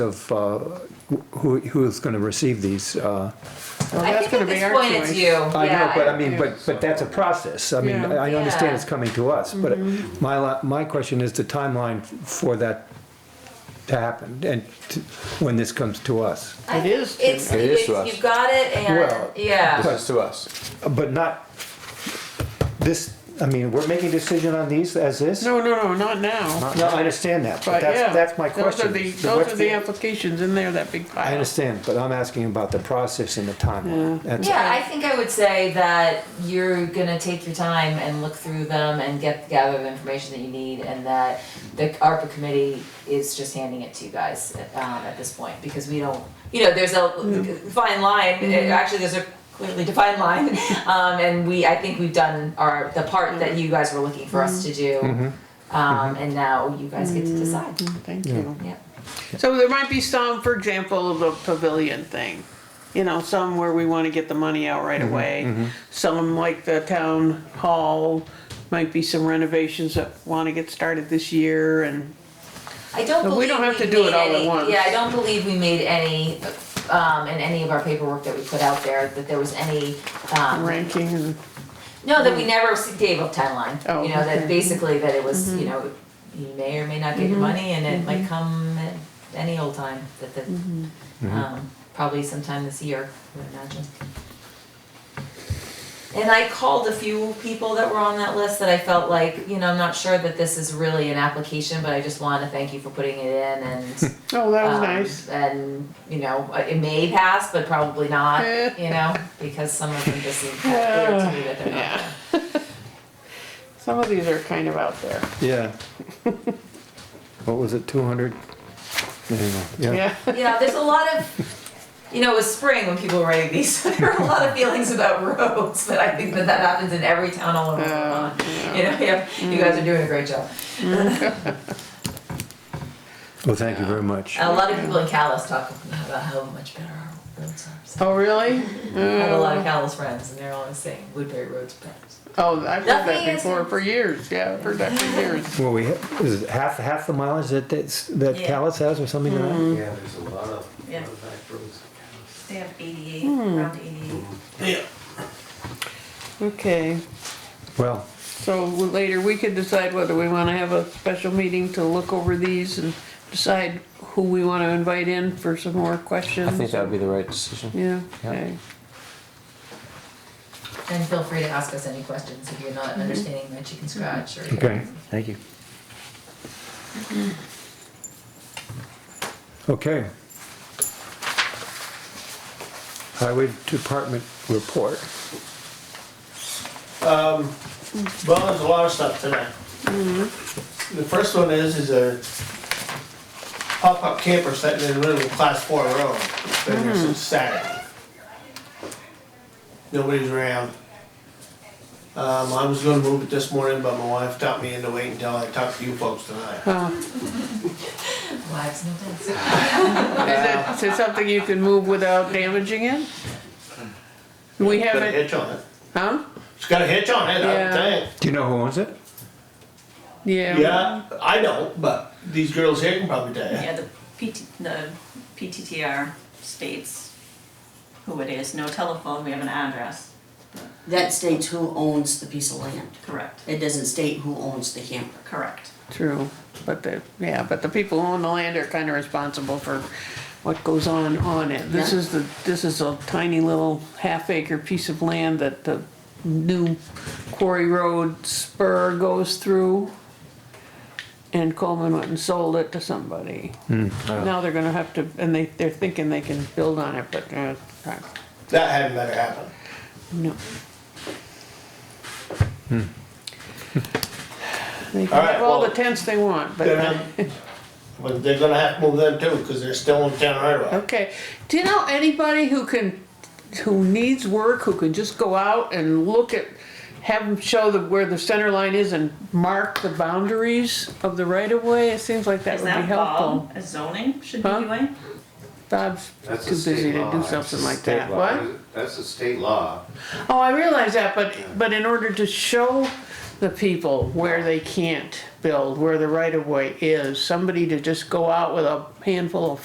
of uh, who, who is going to receive these. uh, Well, I that's think at gonna be this our point it's choice. you. I know, Yeah, but I- I mean, but, but that's a process. I mean, Yeah. Mm-hmm. I I understand Yeah. it's coming to us, but my, la- my question is the timeline for that to happen and to- when this comes to us. I It think is to- It's, It is to it's- us. you've got it Well, and, yeah. This is to us. But not this, I mean, we're making a decision on these as is? No, no, no, not now. No, I understand that, but But yeah. that's, that's my question. Those are the, What's those are the applications in there, that big pile. I understand, but I'm asking about the process and the timeline. That's- Yeah, I think I would say that you're gonna take your time and look through them and get the gather of information that you need and that the ARPA committee is just handing it to you guys um, at this point, because we don't, you know, there's a fine line, actually, there's a clearly defined line. Um, and we, I think we've done our, the part that you guys were looking for us to do. Um, and now you guys get to decide, Thank you. yeah. So there might be some, for example, the pavilion thing. You know, some where we wanna get the money out right away. Some like the town hall, might be some renovations that wanna get started this year and, I don't But believe we we don't have to do made it all at any- once. Yeah, I don't believe we made any, um, in any of our paperwork that we put out there, that there was any, um. ranking and, No, that we never s- gave a timeline, Mm. Oh, you know, okay. Mm-hmm. that basically that it was, you know, you may or may not get your money and it might come at any old time, that the, Mm-hmm. um, probably sometime this year, I would imagine. And I called a few people that were on that list that I felt like, you know, I'm not sure that this is really an application, but I just wanna thank you for putting it in and. oh, that was um, nice. And, you know, uh, it may pass, but probably not, Eh. you know, because some of them just seem kind of clear to me that they're not. Yeah. Some of these are kind of out there, Yeah. What was it, 200? Anyway, Yeah, yeah. you know, there's a lot of, you know, it was spring when people were writing these, so there are a lot of feelings about roads, but I think that that happens in every town all over Uh, Vermont. You know, yeah, you guys are doing a great job. well, thank you very much. And a lot of people in Calais talk about how much better our roads are. So Oh, really? I have a lot of Calais friends, and they're always saying Woodbury Road's better. Oh, I've heard Nothing that is- before for years. Yeah, I've heard that for years. Well, we, is it half, half the mileage that, that's- that Yeah. Callis has or something like that? Yeah, there's a lot of, Yeah. lot of back roads. They have 88, around 88. Okay, Well, so later we could decide whether we want to have a special meeting to look over these and decide who we want to invite in for some more questions. I think that would be the right decision. Yeah, Yeah. okay. And feel free to ask us any questions if you're not understanding my chicken scratch or. okay, Thank you. okay. Highway Department report. Well, there's a lot of stuff today. The first one is, is a pop-up camper sitting in the middle of class four road. It's Been there Mm-hmm. since Saturday. Nobody's around. Um, I was gonna move it this morning, but my wife talked me into waiting until I talked to you folks tonight. Wives, no thanks. Is it, is it something you can move without damaging it? We It's Got a haven't, hitch on it. huh? It's got a hitch on it, I Yeah. would think. Do you know who owns it? Yeah. Yeah, I don't, but these girls here can probably tell you. Yeah, the PT, the PTTR states who it is, no telephone, we have an address, That states who owns the piece of land. correct, It doesn't state who owns the camper. correct. True, but the, yeah, but the people who own the land are kind of responsible for what goes on on it. This Yeah. is the, this is a tiny little half acre piece of land that the new quarry road spur goes through. And Coleman went and sold it to somebody. Now they're gonna have to, and they, they're thinking they can build on it, but, uh, That hadn't better happen. no. They All can right, have all the well, tents they want, but. Then I'm- um, But they're gonna have to move them too, because they're still in town right away. Okay. Do you know anybody who can, who needs work, who can just go out and look at, have them show the, where the center line is and mark the boundaries of the right of way? It seems like that Is would be that helpful. Bob, as zoning, should be Huh? doing? Bob's That's a too busy state to law. do That's a something like state that. law. What? That's a state law. Oh, I realize that, but, but in order to show the people where they can't build, where the right of way is, somebody to just go out with a handful of